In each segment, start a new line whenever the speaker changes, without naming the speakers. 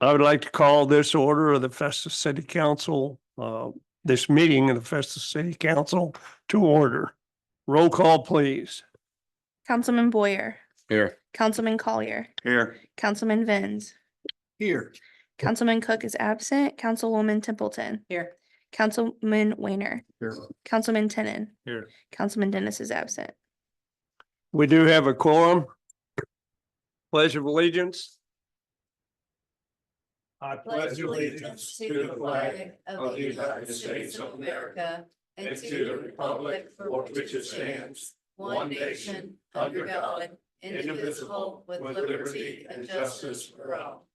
I would like to call this order of the Festus City Council, uh, this meeting of the Festus City Council to order. Roll call, please.
Councilman Boyer,
Here.
Councilman Collier,
Here.
Councilman Vins,
Here.
Councilman Cook is absent, Councilwoman Templeton. Here. Councilman Weiner,
Here.
Councilman Tenon.
Here.
Councilman Dennis is absent.
We do have a quorum. Pledge of allegiance. I
pledge allegiance to the flag of the United States of America and to the republic for which it stands, one nation, under God, indivisible, with liberty and justice for all.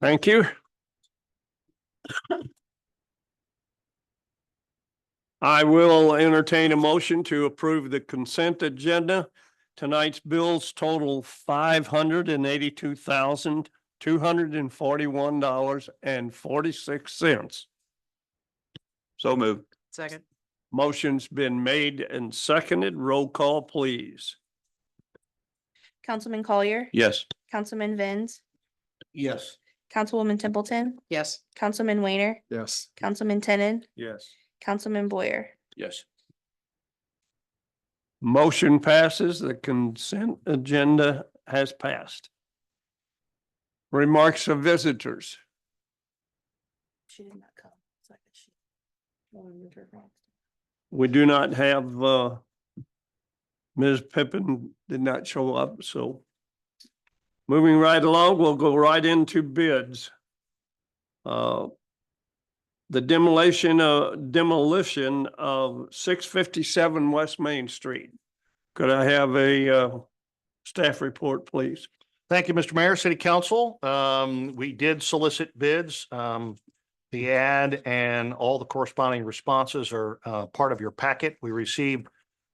Thank you. I will entertain a motion to approve the consent agenda. Tonight's bills total five hundred and eighty-two thousand, two hundred and forty-one dollars and forty-six cents.
So moved.
Second.
Motion's been made and seconded. Roll call, please.
Councilman Collier,
Yes.
Councilman Vins,
Yes.
Councilwoman Templeton,
Yes.
Councilman Weiner,
Yes.
Councilman Tenon,
Yes.
Councilman Boyer.
Yes.
Motion passes. The consent agenda has passed. Remarks of visitors.
She did not come. so I guess she- I wanna move her back.
We do not have, uh, Ms. Pippin did not show up, so. Moving right along, we'll go right into bids. Uh, The demolition, uh, demolition of six fifty-seven West Main Street. Could I have a, uh, staff report, please?
Thank you, Mr. Mayor, City Council. Um, we did solicit bids. Um, the ad and all the corresponding responses are, uh, part of your packet. We received,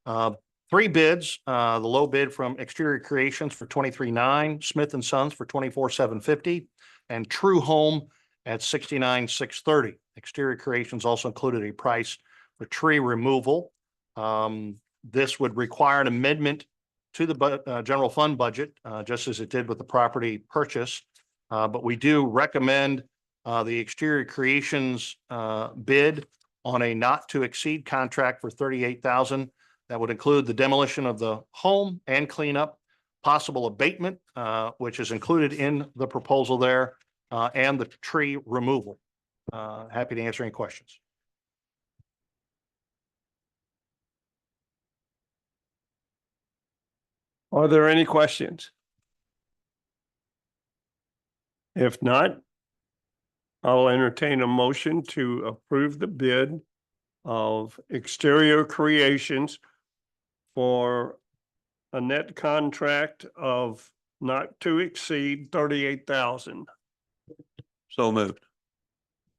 uh, three bids, uh, the low bid from Exterior Creations for twenty-three nine, Smith and Sons for twenty-four seven fifty, and True Home at sixty-nine six thirty. Exterior Creations also included a price for tree removal. Um, this would require an amendment to the bu- uh, general fund budget, uh, just as it did with the property purchase. Uh, but we do recommend, uh, the exterior creations, uh, bid on a not to exceed contract for thirty-eight thousand. That would include the demolition of the home and cleanup, possible abatement, uh, which is included in the proposal there, uh, and the tree removal. Uh, happy to answer any questions.
Are there any questions? If not, I'll entertain a motion to approve the bid of Exterior Creations for a net contract of not to exceed thirty-eight thousand.
So moved.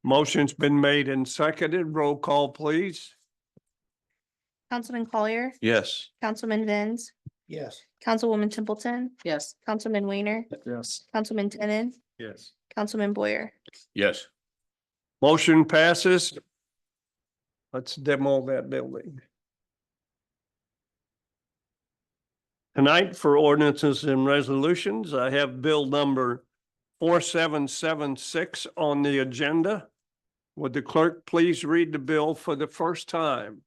Motion's been made and seconded. Roll call, please.
Councilman Collier,
Yes.
Councilman Vins,
Yes.
Councilwoman Templeton,
Yes.
Councilman Weiner,
Yes.
Councilman Tenon,
Yes.
Councilman Boyer.
Yes.
Motion passes. Let's demo that building. Tonight for ordinances and resolutions, I have bill number four seven seven six on the agenda. Would the clerk please read the bill for the first time?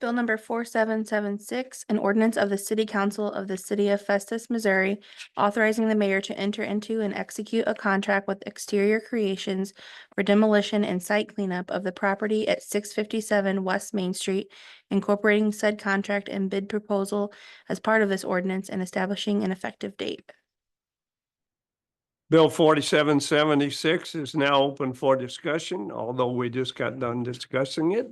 Bill number four seven seven six, an ordinance of the City Council of the City of Festus, Missouri, authorizing the mayor to enter into and execute a contract with Exterior Creations for demolition and site cleanup of the property at six fifty-seven West Main Street, incorporating said contract and bid proposal as part of this ordinance and establishing an effective date.
Bill forty-seven seventy-six is now open for discussion, although we just got done discussing it.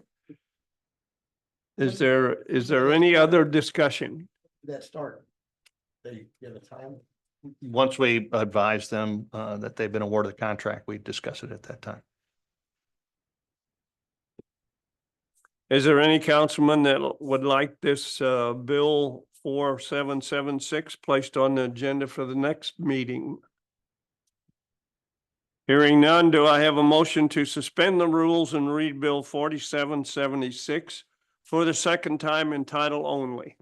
Is there, is there any other discussion?
that start? They get a time?
Once we advise them, uh, that they've been awarded the contract, we discuss it at that time.
Is there any councilman that would like this uh bill four seven seven six placed on the agenda for the next meeting? Hearing none, do I have a motion to suspend the rules and read Bill forty-seven seventy-six for the second time in title only?